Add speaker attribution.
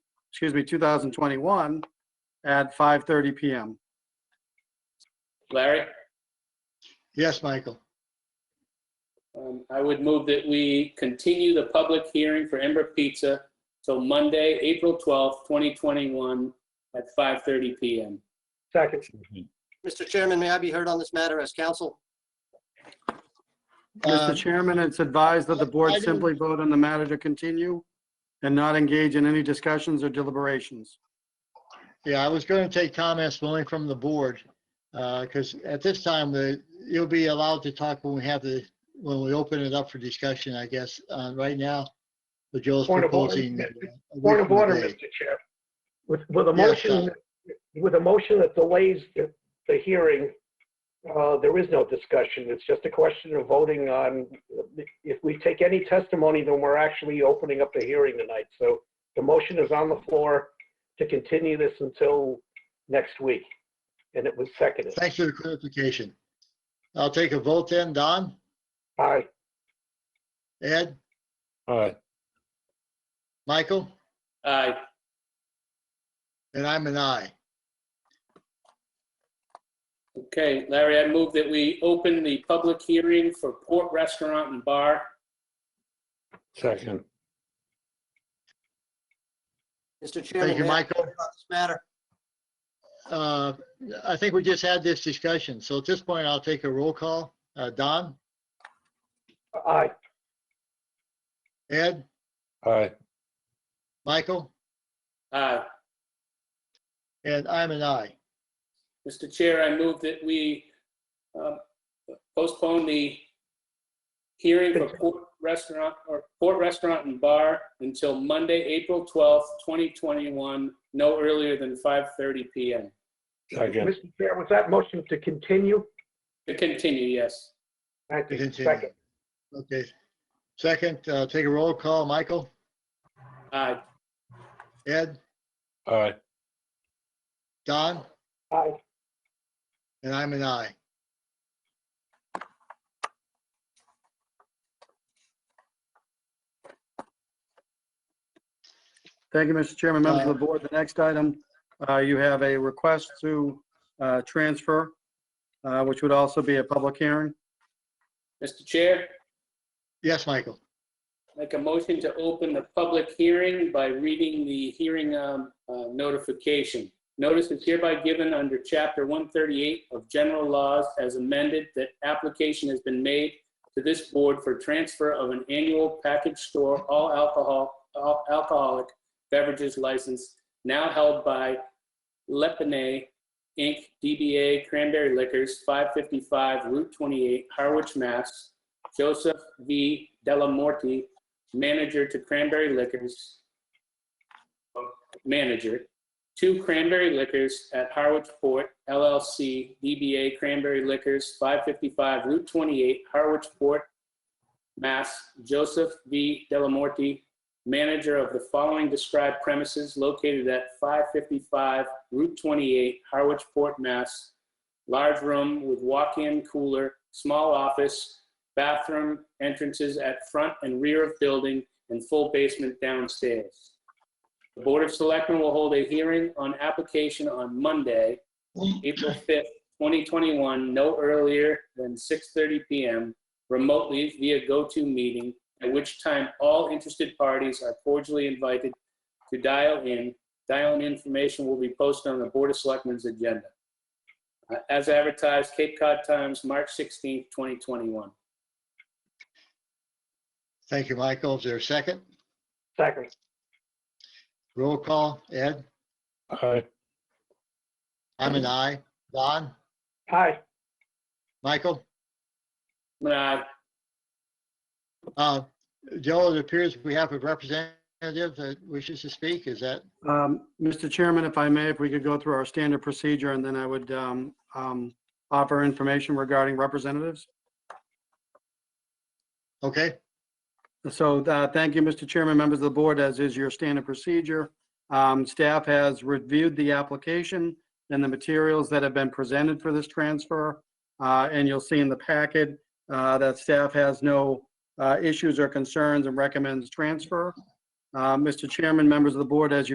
Speaker 1: excuse me, 2021 at 5:30 PM.
Speaker 2: Larry,
Speaker 3: Yes, Michael.
Speaker 2: um, I would move that we continue the public hearing for Ember Pizza till Monday, April 12th, 2021 at 5:30 PM.
Speaker 4: Second.
Speaker 5: Mr. Chairman, may I be heard on this matter as counsel?
Speaker 3: Uh,
Speaker 1: Mr. Chairman, it's advised that the board
Speaker 3: I didn't-
Speaker 1: simply vote on the matter to continue and not engage in any discussions or deliberations.
Speaker 3: Yeah, I was going to take comments only from the board, because at this time, the, you'll be allowed to talk when we have the, when we open it up for discussion, I guess. Uh, Right now, the Joel's
Speaker 4: Point of order.
Speaker 3: proposing. uh, a
Speaker 4: Point
Speaker 3: week
Speaker 4: of
Speaker 3: from
Speaker 4: order,
Speaker 3: today.
Speaker 4: Mr. Chair. With, with a
Speaker 3: Yes,
Speaker 4: motion, with a motion that delays the, the hearing, uh, there is no discussion. It's just a question of voting on, if we take any testimony, then we're actually opening up the hearing tonight. So the motion is on the floor to continue this until next week. And it was seconded.
Speaker 3: Thanks for the clarification. I'll take a vote then. Don,
Speaker 4: Aye.
Speaker 3: Ed,
Speaker 6: Aye.
Speaker 3: Michael,
Speaker 2: Aye.
Speaker 3: and I'm an aye.
Speaker 2: Okay, Larry, I move that we open the public hearing for Port Restaurant and Bar.
Speaker 6: Second.
Speaker 5: Mr. Chairman.
Speaker 3: Thank
Speaker 5: may I
Speaker 3: you,
Speaker 5: be
Speaker 3: Michael.
Speaker 5: heard On this matter,
Speaker 3: Uh, I think we just had this discussion, so at this point, I'll take a roll call. Uh, Don,
Speaker 4: Aye.
Speaker 3: Ed,
Speaker 6: Aye.
Speaker 3: Michael,
Speaker 2: Aye.
Speaker 3: and I'm an aye.
Speaker 2: Mr. Chair, I move that we um, postpone the hearing for Port Restaurant, or Port Restaurant and Bar until Monday, April 12th, 2021, no earlier than 5:30 PM.
Speaker 6: Second.
Speaker 4: Mr. Chair, was that motion to continue?
Speaker 2: To continue, yes.
Speaker 4: Thank
Speaker 3: To
Speaker 4: you.
Speaker 3: continue.
Speaker 4: Second.
Speaker 3: Okay. Second, uh, take a roll call. Michael,
Speaker 2: Aye.
Speaker 3: Ed,
Speaker 6: Aye.
Speaker 3: Don,
Speaker 4: Aye.
Speaker 3: and I'm an aye.
Speaker 1: Thank you, Mr. Chairman, members
Speaker 3: Uh,
Speaker 1: of the board. The next item, uh, you have a request to uh, transfer, uh, which would also be a public hearing.
Speaker 2: Mr. Chair,
Speaker 3: Yes, Michael.
Speaker 2: make a motion to open the public hearing by reading the hearing um, uh, notification. Notice is hereby given under Chapter 138 of General Laws as amended that application has been made to this board for transfer of an annual package store all alcohol, all alcoholic beverages license now held by Lepine Inc., DBA Cranberry Liquors, 555 Route 28, Harwich, Mass. Joseph V. Delamorte, manager to Cranberry Liquors, uh, manager, to Cranberry Liquors at Harwich Port LLC, DBA Cranberry Liquors, 555 Route 28, Harwich Port, Mass. Joseph V. Delamorte, manager of the following described premises located at 555 Route 28, Harwich Port, Mass. Large room with walk-in cooler, small office, bathroom entrances at front and rear of building and full basement downstairs. The Board of Selectmen will hold a hearing on application on Monday, April 5th, 2021, no earlier than 6:30 PM remotely via GoToMeeting, at which time all interested parties are cordially invited to dial in. Dial-in information will be posted on the Board of Selectmen's agenda. Uh, As advertised, Cape Cod Times, March 16th, 2021.
Speaker 3: Thank you, Michael. Is there a second?
Speaker 4: Second.
Speaker 3: Roll call. Ed,
Speaker 6: Aye.
Speaker 3: I'm an aye. Don,
Speaker 4: Aye.
Speaker 3: Michael?
Speaker 2: Aye.
Speaker 3: Uh, Joe, it appears we have a representative that wishes to speak. Is that,
Speaker 1: Um, Mr. Chairman, if I may, if we could go through our standard procedure, and then I would um, um, offer information regarding representatives.
Speaker 3: okay?
Speaker 1: So uh, thank you, Mr. Chairman, members of the board, as is your standard procedure. Um, Staff has reviewed the application and the materials that have been presented for this transfer. Uh, And you'll see in the packet uh, that staff has no uh, issues or concerns and recommends transfer. Uh, Mr. Chairman, members of the board, as you